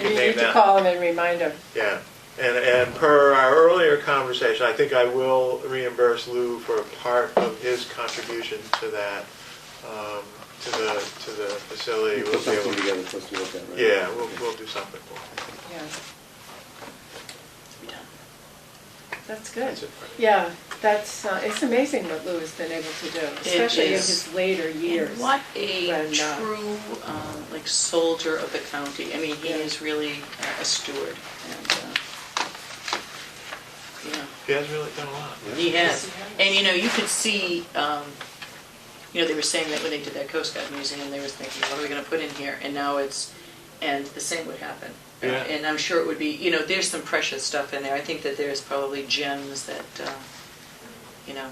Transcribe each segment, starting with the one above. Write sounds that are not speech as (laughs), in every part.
can You name need to that. call them and remind them. Yeah, and, and per our earlier conversation, I think I will reimburse Lou for part of his contribution to that, um, to the, to the facility. You We'll put be something able- together for us to look at, right? Yeah, we'll, we'll do something for him. Yeah. That's good. That's it. Yeah, that's, uh, it's amazing what Lou has been able to do, especially in is. his later years. And what a when, uh, true, um, like soldier of the county. I mean, he Yeah. is really uh, a steward and, uh, yeah. He has really done a lot. He has. Yes, he has. And, you know, you could see, um, you know, they were saying that when they did that Coast Guard museum, they were thinking, what are we gonna put in here? And now it's, and the same would happen. Yeah. And I'm sure it would be, you know, there's some precious stuff in there. I think that there's probably gems that, uh, you know,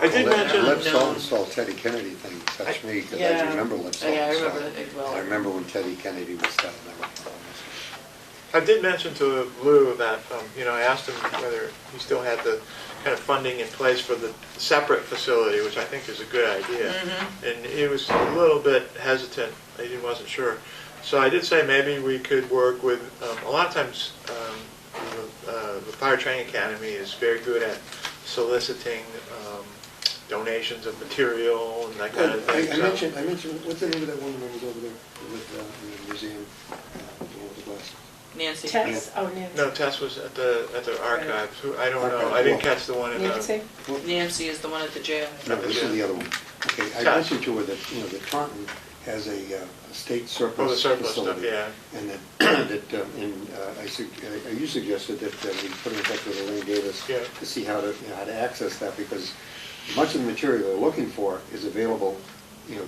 I did Well, mention. Lip salt unknown. and salt Teddy Kennedy thing touched me, because I Yeah. do remember lip salt Yeah, I and salt. remember that as well. I remember when Teddy Kennedy was down there. I did mention to Lou that, um, you know, I asked him whether he still had the kind of funding in place for the separate facility, which I think is a good idea. And he was a little bit hesitant, he wasn't sure. So I did say maybe we could work with, um, a lot of times, um, the uh, the Fire Training Academy is very good at soliciting um, donations of material and that kind of I thing. I so- mentioned, I mentioned, what's the name of that woman that was over there with, uh, in the museum, uh, with the glass? Nancy. Tess, oh, Nancy. No, Tess was at the, at the archives, Who- I don't know, I didn't catch the one in the. Nancy? Nancy is the one at the jail. No, this is the other one. Okay, I Yeah. mentioned to her that, you know, that Taunton has a uh, a state Oh, the surplus surplus stuff, facility. yeah. And that, (clears throat) that, um, and uh, I sug- uh, you suggested that uh, we put in touch with Elaine Davis Yeah. to see how to, you know, how to access that, because much of the material they're looking for is available, you know,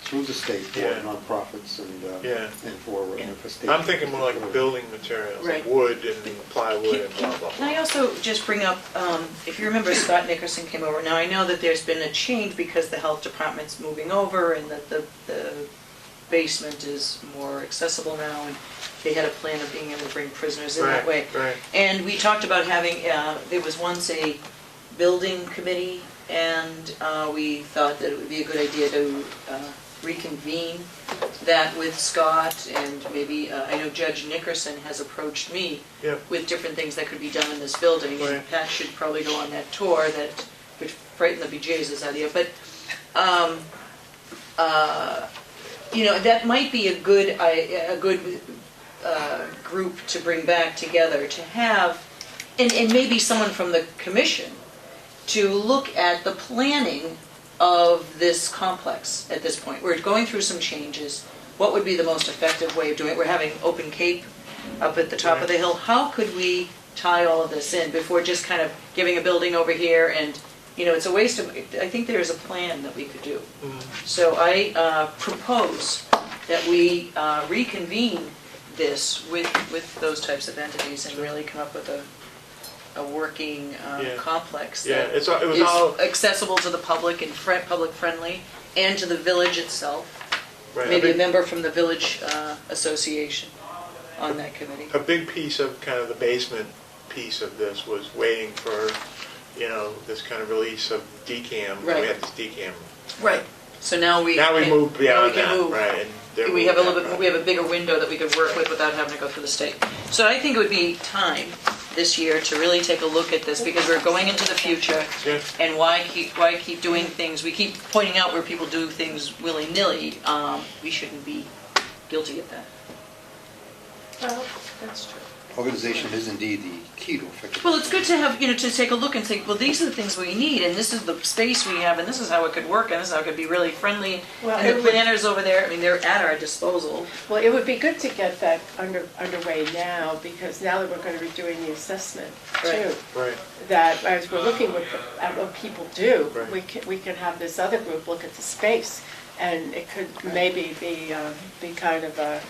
through the state for Yeah. nonprofits and, uh, Yeah. and for, uh, for state. I'm thinking more like building materials, like Right. wood and plywood Can and blah, blah, can I blah. also just bring up, um, if you remember Scott Nickerson came over, now I know that there's been a change because the health department's moving over and that the, the basement is more accessible now and they had a plan of being able to bring prisoners in that way. Right, right. And we talked about having, uh, there was once a building committee and uh, we thought that it would be a good idea to uh, reconvene that with Scott and maybe, uh, I know Judge Nickerson has approached me Yeah, with different things that could be done in this building. And Right. Pat should probably go on that tour that would frighten the BJ's out of you. But, um, uh, you know, that might be a good, I- a good uh, group to bring back together, to have, and, and maybe someone from the commission, to look at the planning of this complex at this point. We're going through some changes. What would be the most effective way of doing it? We're having Open Cape up at the top of the hill. How could we tie all of this in before just kind of giving a building over here and, you know, it's a waste of, I think there is a plan that we could do. Mm-hmm. So I uh, propose that we uh, reconvene this with, with those types of entities and really come up with a, a working um, Yeah. complex yeah, that it's, all- it was is all, accessible to the public and fri- public friendly and to the village itself. right, a Maybe a big, member from the village uh, association on that committee. a big piece of kind of the basement piece of this was waiting for, you know, this kind of release of DCAM. We Right. had this DCAM. Right. So now we. Now we can- move now we beyond can that, move. right? and they're We have a moving little bit, that we have a bigger window that we could work with without having to go through the state. So I think it would be time this year to really take a look at this because we're going into the future. Yeah. And why keep, why keep doing things, we keep pointing out where people do things willy-nilly, um, we shouldn't be guilty of that. Well, that's true. Organization is indeed the key to effective. Well, it's good to have, you know, to take a look and think, well, these are the things we need, and this is the space we have, and this is how it could work, and this is how it could be really friendly. Well, And it the would- planners over there, I mean, they're at our disposal. Well, it would be good to get that under, underway now, because now that we're gonna be doing the assessment too, Right. Right, that as we're looking with- at what people do, Right. we can, we can have this other group look at the space, and it could maybe be, um, be kind of a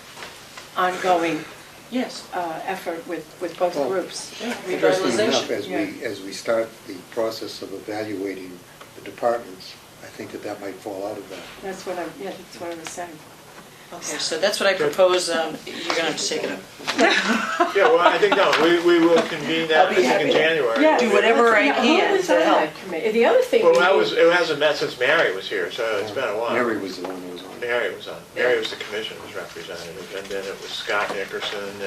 ongoing Yes. uh, effort with, with both Well, groups. Interesting Revitalization, enough, as we, yeah. as we start the process of evaluating the departments, I think that that might fall out of that. That's what I'm, yeah, that's what I was saying. Okay, so that's what I propose, um, you're gonna have to take it up. Yeah, well, I think, no, we, we will convene that, (laughs) I'll I be think, happy in to January. Yeah. do whatever I Yeah, can Who was to on help. that committee? The other thing. Well, we I need- was, it hasn't met since Mary was here, so it's been a while. Mary was the one who was on. it. Mary was on, Mary was the commission's representative, and then it was Scott Nickerson